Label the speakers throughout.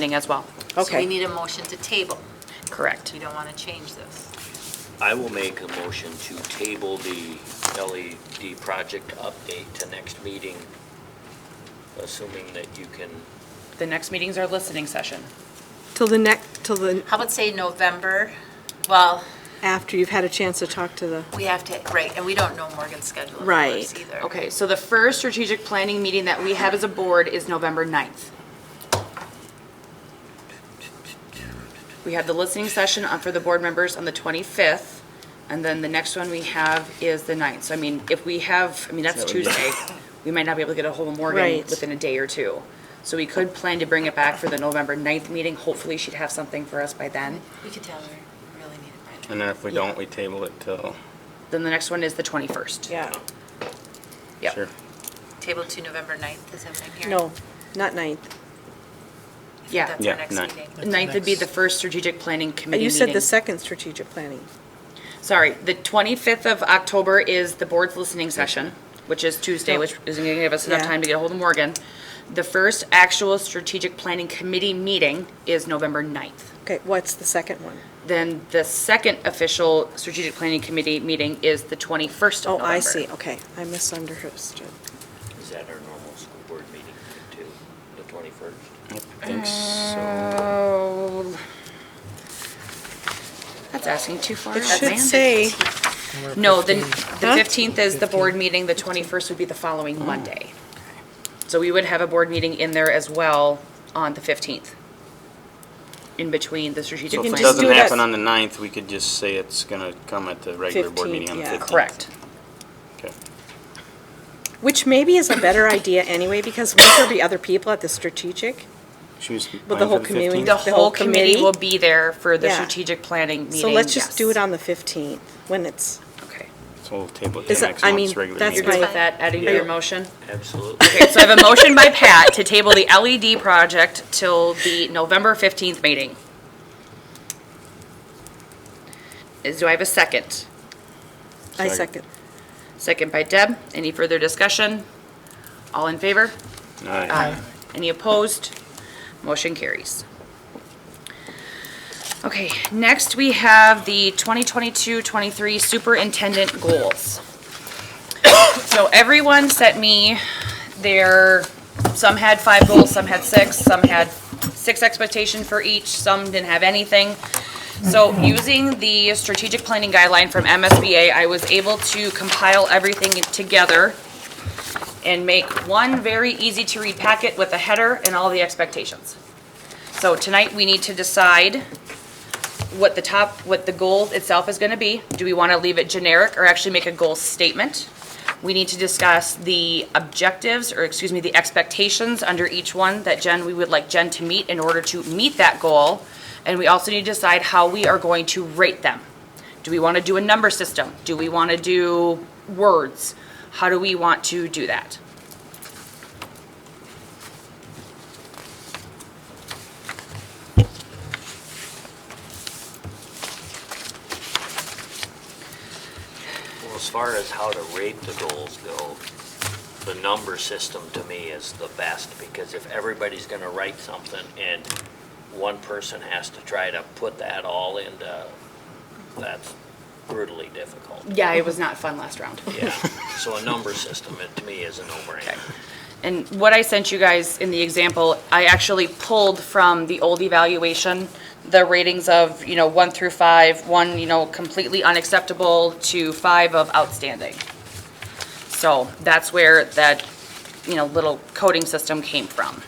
Speaker 1: meeting as well.
Speaker 2: So we
Speaker 3: Okay.
Speaker 2: need a motion to table.
Speaker 1: Correct.
Speaker 2: You don't want to change this.
Speaker 4: I will make a motion to table the LED project update to next meeting, assuming that you can,
Speaker 1: The next meeting's our listening session.
Speaker 3: Till the next, till the,
Speaker 2: How about say November? Well,
Speaker 3: after you've had a chance to talk to the,
Speaker 2: we have to, right, and we don't know Morgan's schedule, of course,
Speaker 3: Right.
Speaker 2: either.
Speaker 1: Okay, so the first strategic planning meeting that we have as a board is November 9th. We have the listening session on- for the board members on the 25th, and then the next one we have is the 9th. So I mean, if we have, I mean, that's Tuesday, we might not be able to get a hold of Morgan
Speaker 3: Right.
Speaker 1: within a day or two. So we could plan to bring it back for the November 9th meeting. Hopefully, she'd have something for us by then.
Speaker 2: We could tell her, we really need it by
Speaker 5: And then if we don't, we table it till,
Speaker 1: Then the next one is the 21st.
Speaker 3: yeah,
Speaker 1: Yep.
Speaker 5: sure.
Speaker 2: then. Table to November 9th, is that what I'm hearing?
Speaker 3: no, not ninth.
Speaker 2: I think
Speaker 1: Yeah.
Speaker 2: That's
Speaker 5: Yeah,
Speaker 2: our next
Speaker 5: 9th.
Speaker 2: meeting.
Speaker 1: Ninth would be the first strategic planning committee
Speaker 3: You
Speaker 1: meeting.
Speaker 3: said the second strategic planning.
Speaker 1: Sorry, the 25th of October is the board's listening session, which is Tuesday, which isn't going to give us enough
Speaker 3: Yeah.
Speaker 1: time to get a hold of Morgan. The first actual strategic planning committee meeting is November 9th.
Speaker 3: Okay, what's the second one?
Speaker 1: Then the second official strategic planning committee meeting is the 21st
Speaker 3: Oh,
Speaker 1: of November.
Speaker 3: I see, okay, I misunderstood.
Speaker 4: is that our normal school board meeting too, the 21st?
Speaker 5: I think so.
Speaker 1: Oh. That's asking too far.
Speaker 3: It
Speaker 1: out,
Speaker 3: should
Speaker 1: man.
Speaker 3: say,
Speaker 1: No, the, the
Speaker 3: Huh?
Speaker 1: 15th is the board meeting, the 21st would be the
Speaker 5: Oh.
Speaker 1: following Monday. So we would have a board meeting in there as well on the 15th, in between the strategic
Speaker 5: So
Speaker 1: plan.
Speaker 5: if it
Speaker 3: just do
Speaker 5: doesn't
Speaker 3: that-
Speaker 5: happen on the ninth, we could just say it's gonna come at the regular board meeting on the
Speaker 3: 15th, yeah.
Speaker 5: fifteenth.
Speaker 1: Correct.
Speaker 5: Okay.
Speaker 3: which maybe is a better idea anyway, because won't there be other people at the strategic?
Speaker 5: She was
Speaker 3: the
Speaker 5: mine for
Speaker 3: whole
Speaker 5: the
Speaker 3: community-
Speaker 5: 15th?
Speaker 1: The whole committee will be there for the
Speaker 3: Yeah.
Speaker 1: strategic planning meeting,
Speaker 3: So let's just do
Speaker 1: yes.
Speaker 3: it on the 15th, when it's,
Speaker 1: Okay.
Speaker 5: So we'll table it
Speaker 3: Is
Speaker 5: till
Speaker 3: it-
Speaker 5: next
Speaker 3: I
Speaker 5: month's
Speaker 3: mean,
Speaker 5: regular
Speaker 3: that's
Speaker 5: meeting.
Speaker 1: You're good with
Speaker 3: Fine.
Speaker 1: that, adding to your
Speaker 5: Yeah.
Speaker 1: motion?
Speaker 4: Absolutely.
Speaker 1: Okay, so I have a motion by Pat to table the LED project till the November 15th meeting. Is, do I have a second?
Speaker 3: I
Speaker 5: Second.
Speaker 3: second.
Speaker 1: Second by Deb. Any further discussion? All in favor?
Speaker 5: Aye.
Speaker 1: Any opposed? Motion carries. Okay, next we have the 2022-23 Superintendent Goals. So everyone sent me their, some had five goals, some had six, some had six expectation for each, some didn't have anything. So using the strategic planning guideline from MSBA, I was able to compile everything together and make one very easy-to-read packet with a header and all the expectations. So tonight, we need to decide what the top, what the goal itself is going to be. Do we want to leave it generic or actually make a goal statement? We need to discuss the objectives, or excuse me, the expectations under each one that Jen, we would like Jen to meet in order to meet that goal. And we also need to decide how we are going to rate them. Do we want to do a number system? Do we want to do words? How do we want to do that?
Speaker 4: Well, as far as how to rate the goals go, the number system to me is the best, because if everybody's gonna write something and one person has to try to put that all into, that's brutally difficult.
Speaker 1: Yeah, it was not fun last round.
Speaker 4: Yeah, so a number system, it to me is a no-brainer.
Speaker 1: And what I sent you guys in the example, I actually pulled from the old evaluation, the ratings of, you know, one through five, one, you know, completely unacceptable to five of outstanding. So that's where that, you know, little coding system came from.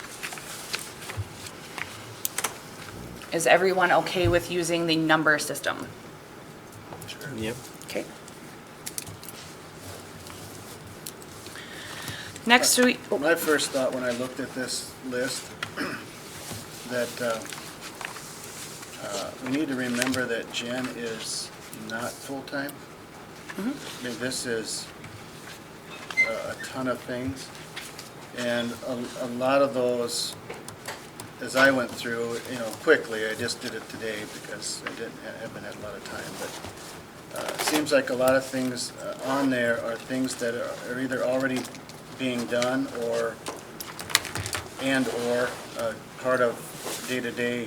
Speaker 1: Is everyone okay with using the number system?
Speaker 5: Yep.
Speaker 1: Okay. Next, we,
Speaker 6: My first thought when I looked at this list, that uh, uh, we need to remember that Jen is not full-time. I mean, this is uh, a ton of things, and a- a lot of those, as I went through, you know, quickly, I just did it today because I didn't, ha- haven't had a lot of time, but uh, it seems like a lot of things uh, on there are things that are are either already being done or, and/or uh, part of day-to-day